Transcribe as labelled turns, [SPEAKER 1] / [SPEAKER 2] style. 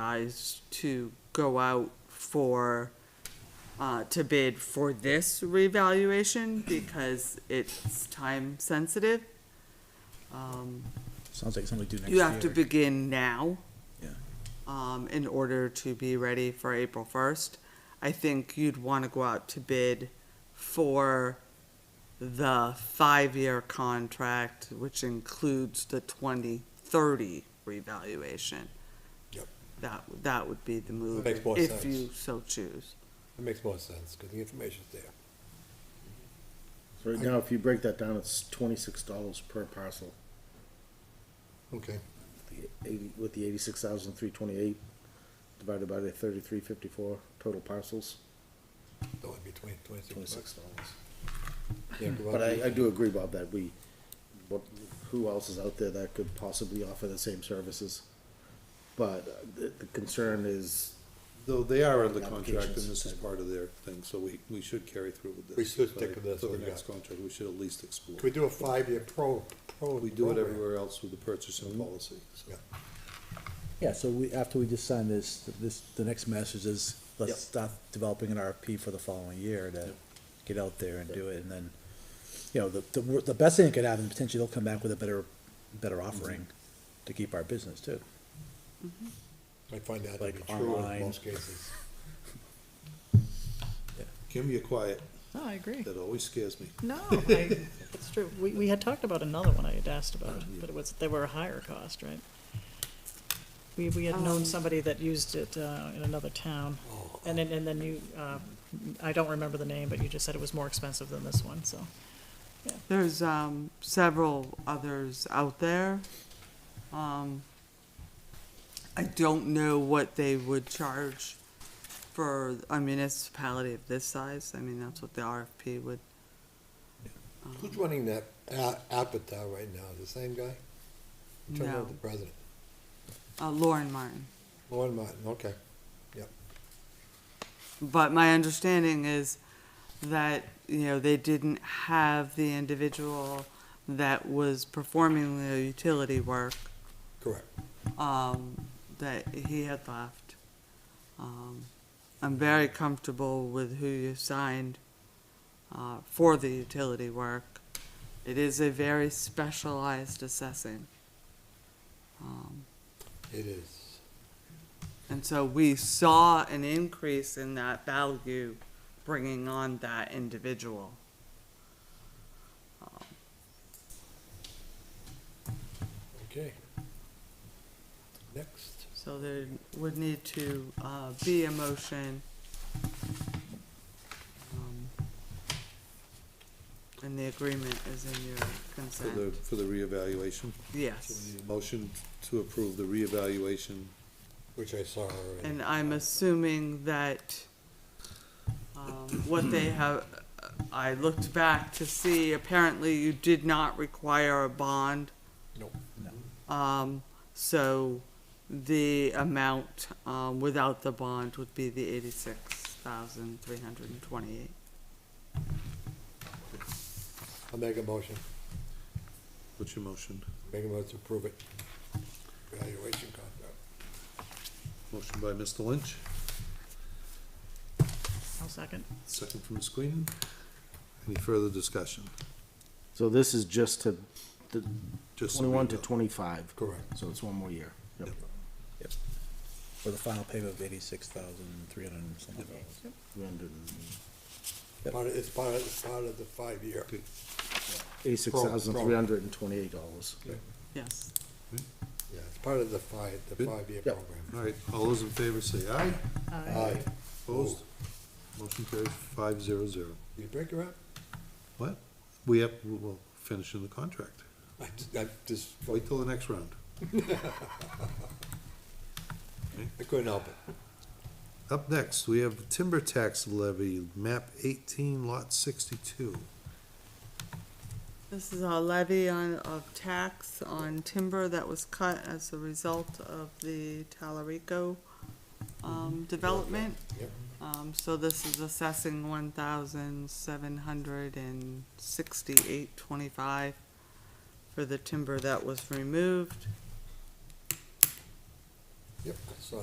[SPEAKER 1] advised to go out for, uh, to bid for this revaluation because it's time sensitive. Um,
[SPEAKER 2] Sounds like something we do next
[SPEAKER 1] you have to
[SPEAKER 2] year.
[SPEAKER 1] begin now.
[SPEAKER 2] Yeah.
[SPEAKER 1] Um, in order to be ready for April first. I think you'd wanna go out to bid for the five-year contract, which includes the twenty thirty revaluation.
[SPEAKER 3] Yep.
[SPEAKER 1] That, that would be the move.
[SPEAKER 3] Makes more
[SPEAKER 1] If
[SPEAKER 3] sense.
[SPEAKER 1] you so choose.
[SPEAKER 3] It makes more sense, because the information's there.
[SPEAKER 4] So right now, if you break that down, it's twenty-six dollars per parcel,
[SPEAKER 3] Okay.
[SPEAKER 4] the eighty, with the eighty-six thousand three twenty-eight divided by the thirty-three fifty-four total parcels,
[SPEAKER 3] That would be twenty, twenty-six bucks.
[SPEAKER 4] twenty-six dollars.
[SPEAKER 3] Yeah, go
[SPEAKER 4] But
[SPEAKER 3] out
[SPEAKER 4] I, I
[SPEAKER 3] and-
[SPEAKER 4] do agree, Bob, that we, what, who else is out there that could possibly offer the same services? But uh, the, the concern is,
[SPEAKER 5] Though they are under contract, and
[SPEAKER 4] Applications.
[SPEAKER 5] this is part of their thing, so we, we should carry through with this.
[SPEAKER 3] We should
[SPEAKER 5] But
[SPEAKER 3] stick with this
[SPEAKER 5] For the
[SPEAKER 3] one, yeah.
[SPEAKER 5] next contract, we should at least explore.
[SPEAKER 3] Can we do a five-year pro, pro?
[SPEAKER 5] We do it
[SPEAKER 3] program?
[SPEAKER 5] everywhere else with the
[SPEAKER 3] Mm-hmm.
[SPEAKER 5] purchasing policy, so.
[SPEAKER 3] Yeah.
[SPEAKER 6] Yeah, so we, after we just sign this, this, the next message is,
[SPEAKER 5] Yep.
[SPEAKER 6] let's start developing an RFP for the following year to
[SPEAKER 5] Yep.
[SPEAKER 6] get out there and do it, and then, you know, the, the, wor- the best thing that could happen, potentially they'll come back with a better, better offering
[SPEAKER 5] Mm-hmm.
[SPEAKER 6] to keep our business too.
[SPEAKER 3] I find that to
[SPEAKER 6] Like
[SPEAKER 3] be true in
[SPEAKER 6] online.
[SPEAKER 3] most cases.
[SPEAKER 5] Kim, you're quiet,
[SPEAKER 7] No, I agree.
[SPEAKER 5] that always scares me.
[SPEAKER 7] No, I, it's true. We, we had talked about another one I had asked about, but it was, they were a higher cost, right? We, we had known somebody that used it, uh, in another town, and then, and then you, uh, I don't remember the name, but you just said it was more expensive than this one, so.
[SPEAKER 1] There's, um, several others out there. Um, I don't know what they would charge for a municipality of this size. I mean, that's what the RFP would,
[SPEAKER 3] Who's running that a- Apatow right now? The same guy? I'm trying to
[SPEAKER 1] no.
[SPEAKER 3] remember the president.
[SPEAKER 1] Uh, Lauren Martin.
[SPEAKER 3] Lauren Martin, okay. Yep.
[SPEAKER 1] But my understanding is that, you know, they didn't have the individual that was performing the utility work,
[SPEAKER 3] Correct.
[SPEAKER 1] um, that he had left. Um, I'm very comfortable with who you signed, uh, for the utility work. It is a very specialized assessing. Um,
[SPEAKER 3] It is.
[SPEAKER 1] and so we saw an increase in that value bringing on that individual.
[SPEAKER 3] Okay. Next.
[SPEAKER 1] So there would need to, uh, be a motion. um, And the agreement is in your
[SPEAKER 5] For the,
[SPEAKER 1] consent.
[SPEAKER 5] for the reevaluation, so we
[SPEAKER 1] Yes.
[SPEAKER 5] need a motion to approve the reevaluation.
[SPEAKER 3] Which I saw already.
[SPEAKER 1] And I'm assuming that, um, what they have, uh, I looked back to see, apparently you did not require a bond.
[SPEAKER 3] Nope.
[SPEAKER 1] Um, so the amount, um, without the bond would be the eighty-six thousand three hundred and twenty-eight.
[SPEAKER 3] I'll make a motion.
[SPEAKER 5] What's your motion?
[SPEAKER 3] Make a motion to approve it. Evaluation contract.
[SPEAKER 5] Motion by Mr. Lynch,
[SPEAKER 7] I'll second.
[SPEAKER 5] second from Ms. Queenan. Any further discussion?
[SPEAKER 4] so this is just to, the
[SPEAKER 5] Just so we
[SPEAKER 4] twenty-one to
[SPEAKER 5] know.
[SPEAKER 4] twenty-five,
[SPEAKER 3] Correct.
[SPEAKER 4] so it's one more year. Yep.
[SPEAKER 6] For the final payment of eighty-six thousand, three hundred and something dollars. Yep.
[SPEAKER 3] Part of, it's part of, it's part of the five-year.
[SPEAKER 4] Eighty-six thousand three hundred and twenty-eight dollars.
[SPEAKER 1] Yes.
[SPEAKER 3] Yeah, it's part of the five, the
[SPEAKER 5] Good.
[SPEAKER 3] five-year
[SPEAKER 4] Yep.
[SPEAKER 3] program. Uh,
[SPEAKER 5] All right, all those in favor say aye.
[SPEAKER 3] Aye.
[SPEAKER 5] Opposed? Motion carries five zero zero.
[SPEAKER 3] You break her up?
[SPEAKER 5] What? We have, we'll finish in the contract.
[SPEAKER 3] I, ju- I just,
[SPEAKER 5] Wait till the next round.
[SPEAKER 3] I couldn't help it.
[SPEAKER 5] Up next, we have timber tax levy, map eighteen, lot sixty-two.
[SPEAKER 1] This is a levy on, of tax on timber that was cut as a result of the Talarico, um, development.
[SPEAKER 3] Yep.
[SPEAKER 1] Um, so this is assessing one thousand seven hundred and sixty-eight twenty-five for the timber that was removed.
[SPEAKER 3] Yep, I saw